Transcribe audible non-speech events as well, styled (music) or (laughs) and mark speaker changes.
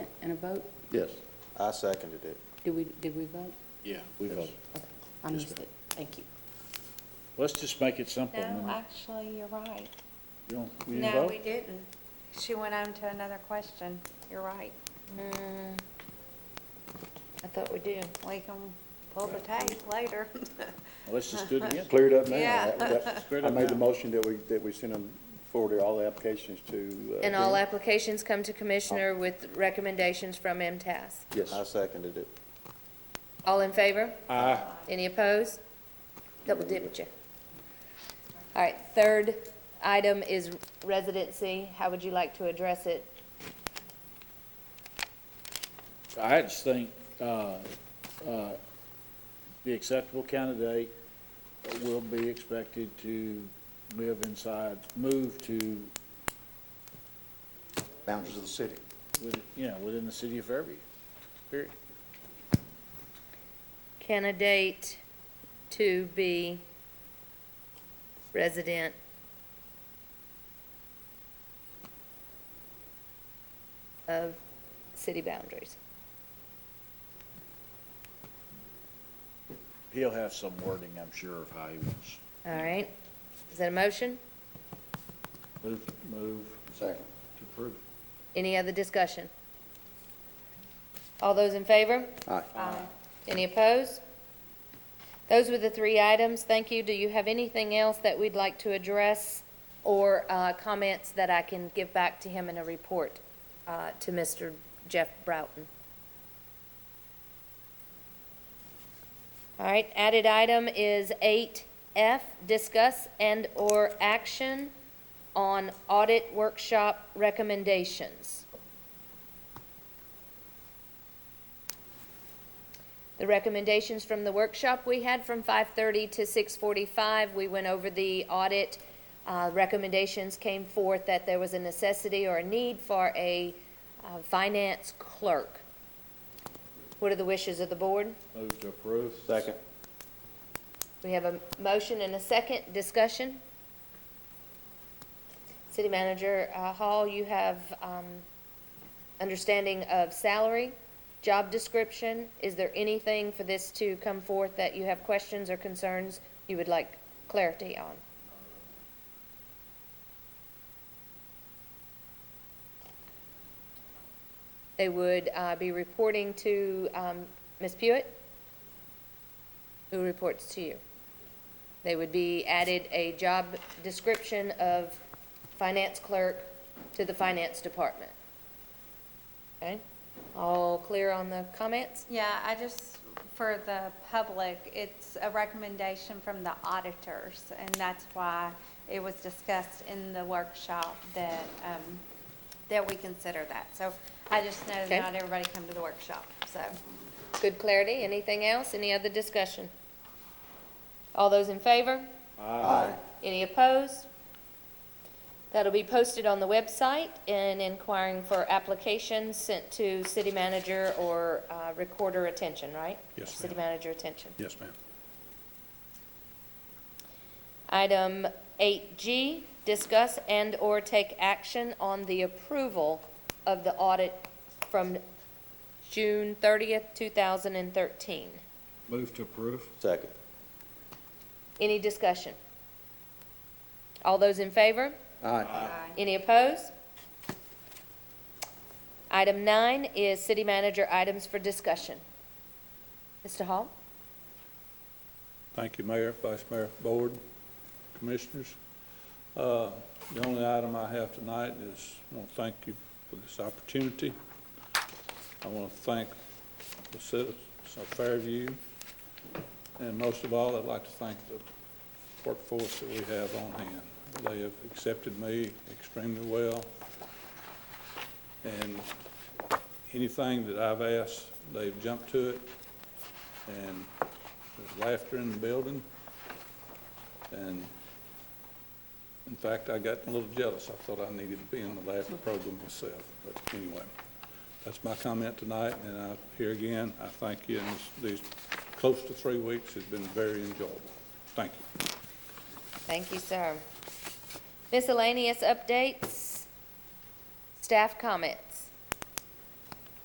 Speaker 1: a vote?
Speaker 2: Yes,
Speaker 3: I seconded it.
Speaker 1: Did we, did we vote?
Speaker 4: Yeah.
Speaker 2: we voted.
Speaker 1: Okay, I missed it. Thank you.
Speaker 4: Let's just make it simple.
Speaker 5: No,
Speaker 4: and
Speaker 5: actually, you're right.
Speaker 4: we don't- we didn't
Speaker 5: No,
Speaker 4: vote?
Speaker 5: we didn't. She went on to another question. You're right. Hmm.
Speaker 6: I thought we did.
Speaker 5: We can pull the tape later. (laughs)
Speaker 4: Well, Let's just do it again.
Speaker 2: Cleared up now.
Speaker 5: Yeah.
Speaker 2: That- that-
Speaker 4: Cleared
Speaker 2: I
Speaker 4: up
Speaker 2: made the
Speaker 4: now.
Speaker 2: motion that we, that we send them forward all the applications to. uh,
Speaker 6: And all
Speaker 2: Dean.
Speaker 6: applications come to Commissioner with recommendations from MTAS.
Speaker 3: I
Speaker 2: Yes,
Speaker 3: seconded it.
Speaker 6: All in favor? Aye. Any opposed? Double dipped you. All right, third item is residency. How would you like to address it?
Speaker 4: I just think uh, uh, the acceptable candidate will be expected to live inside, move to,
Speaker 3: Boundaries of the city.
Speaker 4: with- you know, within the city of Fairview, period.
Speaker 6: Candidate to be resident. Of city boundaries.
Speaker 4: He'll have some wording, I'm sure, of how he wants.
Speaker 6: All right, is that a motion?
Speaker 4: Move, move
Speaker 2: second.
Speaker 4: to approve.
Speaker 6: Any other discussion? All those in favor?
Speaker 2: Aye.
Speaker 6: Any opposed? Those were the three items. Thank you. Do you have anything else that we'd like to address or uh, comments that I can give back to him in a report uh, to Mr. Jeff Broughton? All right, added item is 8F, discuss and/or action on audit workshop recommendations. The recommendations from the workshop we had from 5:30 to 6:45, we went over the audit. Uh, Recommendations came forth that there was a necessity or a need for a uh, finance clerk. What are the wishes of the board?
Speaker 4: Move to approve.
Speaker 3: Second.
Speaker 6: We have a motion and a second discussion. City Manager uh, Hall, you have um, understanding of salary, job description. Is there anything for this to come forth that you have questions or concerns you would like clarity on? They would uh, be reporting to um, Ms. Pewitt? who reports to you. They would be added a job description of finance clerk to the finance department. Okay? All clear on the comments?
Speaker 5: Yeah, I just, for the public, it's a recommendation from the auditors, and that's why it was discussed in the workshop that, um, that we consider that. So I just know
Speaker 6: Okay.
Speaker 5: not everybody come to the workshop, so.
Speaker 6: Good clarity? Anything else? Any other discussion? All those in favor?
Speaker 3: Aye.
Speaker 6: Any opposed? That'll be posted on the website and inquiring for applications sent to city manager or uh, recorder attention, right?
Speaker 7: Yes,
Speaker 6: City
Speaker 7: ma'am.
Speaker 6: manager attention.
Speaker 7: Yes, ma'am.
Speaker 6: Item 8G, discuss and/or take action on the approval of the audit from June 30th, 2013.
Speaker 4: Move to approve.
Speaker 3: Second.
Speaker 6: Any discussion? All those in favor?
Speaker 2: Aye.
Speaker 6: Any opposed? Item 9 is city manager items for discussion. Mr. Hall?
Speaker 7: Thank you, Mayor, Vice Mayor, Board, Commissioners. Uh, The only item I have tonight is, I want to thank you for this opportunity. I want to thank the citizens of Fairview, and most of all, I'd like to thank the workforce that we have on hand. They have accepted me extremely well, and anything that I've asked, they've jumped to it, and there's laughter in the building. And in fact, I got a little jealous. I thought I needed to be on the laughter program myself. But anyway, that's my comment tonight, and I, here again, I thank you, and these these close to three weeks has been very enjoyable. Thank you.
Speaker 6: Thank you, sir. Miscellaneous updates, staff comments.